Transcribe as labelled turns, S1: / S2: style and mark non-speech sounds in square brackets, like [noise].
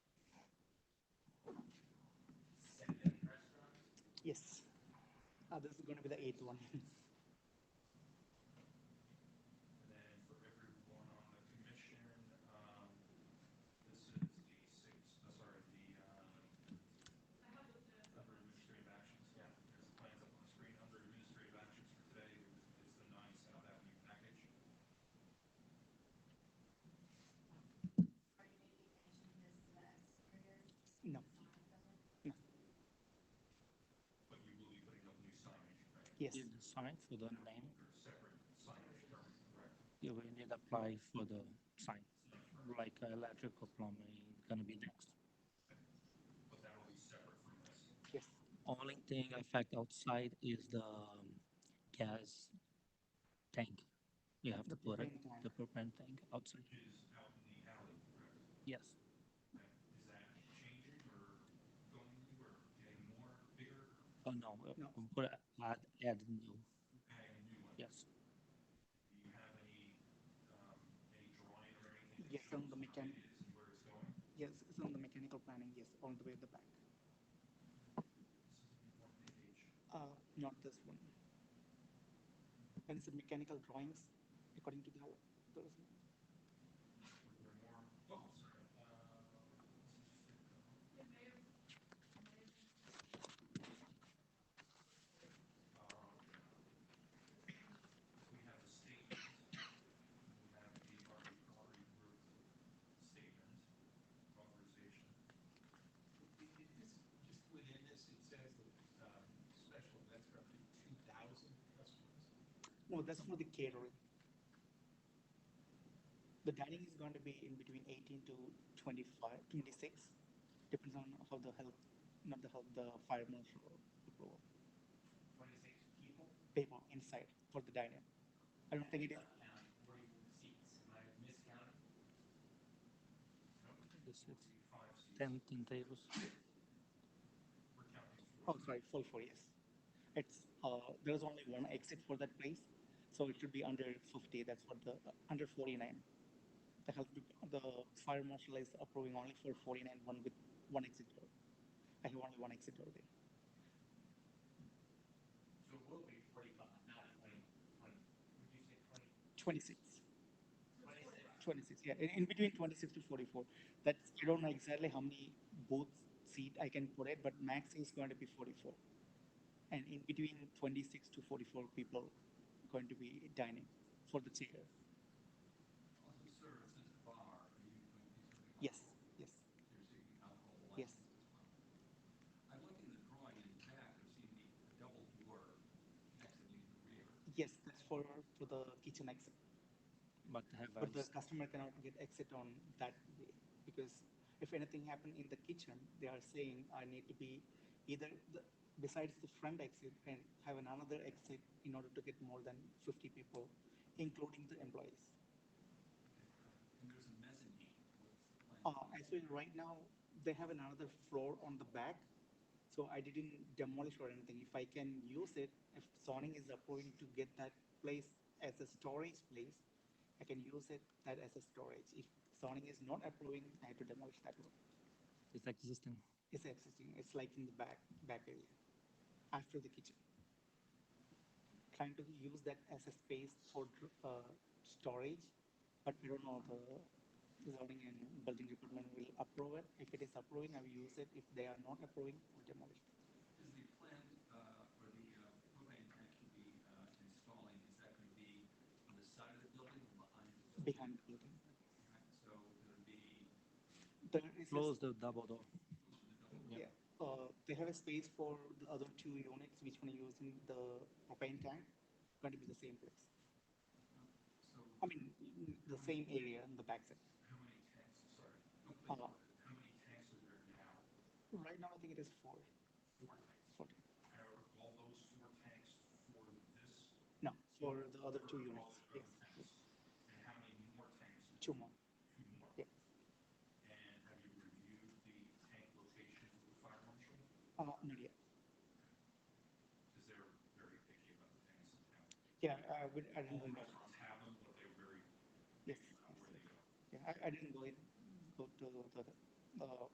S1: Yes. Uh, this is going to be the eighth one. [laughs]
S2: And then for everyone on the commission, um, this is the six, uh, sorry, the, uh, under administrative actions, yeah, there's the plans up on the screen, under administrative actions for today is the nine South Avenue package.
S1: No.
S2: But you will be putting up new signage, right?
S1: Yes.
S3: Need the sign for the name,
S2: There's separate signage, correct?
S3: you will need apply for the sign, like uh, electrical plumbing, gonna be next.
S2: But that'll be separate from this.
S1: Yes.
S3: Only thing affect outside is the um, gas tank. You have to put it,
S1: propane tank.
S3: the propane tank outside,
S2: Is out in the alley, correct?
S3: yes.
S2: Is that changing or going anywhere, getting more, bigger,
S3: Oh, no, uh,
S1: No.
S3: we put, a- add, add new,
S2: adding a new one?
S3: yes.
S2: Do you have any, um, any drawing or anything? that
S1: Yes,
S2: shows
S1: on the
S2: what
S1: mechan-
S2: it is and Where it's going?
S1: Yes, it's on the mechanical planning. Yes, all the way at the back.
S2: One page.
S1: Uh, not this one. And it's the mechanical drawings according to the those.
S2: Were there more? Oh, sorry. Uh, um, We have the statement. We have the Army Recovery Group statement, authorization.
S4: Just within this, it says that, um, special events are up to two thousand customers.
S1: No, that's for the catering. The dining is going to be in between 18 to 25, 26. Depends on how the health, not the health, the fire marshal approval.
S4: Twenty-six people,
S1: People inside for the dining. I don't think it is.
S4: um, forty-one seats, am I miscounting?
S3: This is
S2: Five seats.
S3: ten, ten tables,
S2: We're counting
S1: Oh,
S2: four.
S1: sorry, full four, yes. It's, uh, there's only one exit for that place, so it should be under fifty, that's what the, under forty-nine. The health, dep- the fire marshal is approving only for forty-nine, one with, one exit door. I have only one exit door there.
S4: So it will be forty-five, not twenty, twenty, would you say twenty,
S1: 26,
S4: twenty-six?
S1: 26, yeah, in, in between twenty-six to forty-four. That's, I don't know exactly how many booth seat I can put it, but max is going to be forty-four. And in between twenty-six to forty-four people going to be dining for the chair.
S4: Also serves as a bar, are you going to be serving?
S1: Yes, yes.
S4: There's even alcohol
S1: Yes.
S4: license as well. I look in the drawing in the back, I see the double door exiting the rear.
S1: Yes, that's for, for the kitchen exit,
S3: but have
S1: but the
S3: ice.
S1: customer cannot get exit on that way, because if anything happened in the kitchen, they are saying I need to be either the, besides the front exit and have another exit in order to get more than fifty people, including the employees.
S4: And there's a mezzanine. What's the plan?
S1: Uh, actually, right now, they have another floor on the back, so I didn't demolish or anything. If I can use it, if zoning is approving to get that place as a storage place, I can use it that as a storage. If zoning is not approving, I have to demolish that one.
S3: it's existing.
S1: It's existing, it's like in the back, back area, after the kitchen. Trying to use that as a space for, uh, storage, but we don't know the zoning and building department will approve it. If it is approving, I will use it. If they are not approving, we'll demolish it.
S4: Is the plan, uh, for the uh, propane tank to be, uh, installing, is that gonna be on the side of the building or behind the building?
S1: behind the building.
S4: Right, So it'll be
S1: There is, a-
S3: Close the double
S4: close
S3: door.
S4: to the double door?
S1: yeah, uh, they have a space for the other two units which one are using the propane tank, going to be the same place.
S4: So
S1: I mean, the same area in the backside.
S2: How many tanks, sorry,
S1: Uh,
S2: how many tanks are there now?
S1: right now, I think it is four,
S2: Four tanks.
S1: four.
S2: Are all those four tanks for this?
S1: No, for the other two
S2: or all
S1: units,
S2: the
S1: yes,
S2: other tanks? And how many more tanks?
S1: two more.
S2: Two more.
S1: Yes.
S2: And have you reviewed the tank location with the fire marshal?
S1: Uh, not yet.
S2: Because they're very picky about the tanks in town.
S1: Yeah, I would,
S2: All
S1: I didn't go,
S2: restaurants have them, but they're very
S1: yes,
S2: picky about where they go.
S1: yeah, I, I didn't go in, go to the, the, uh,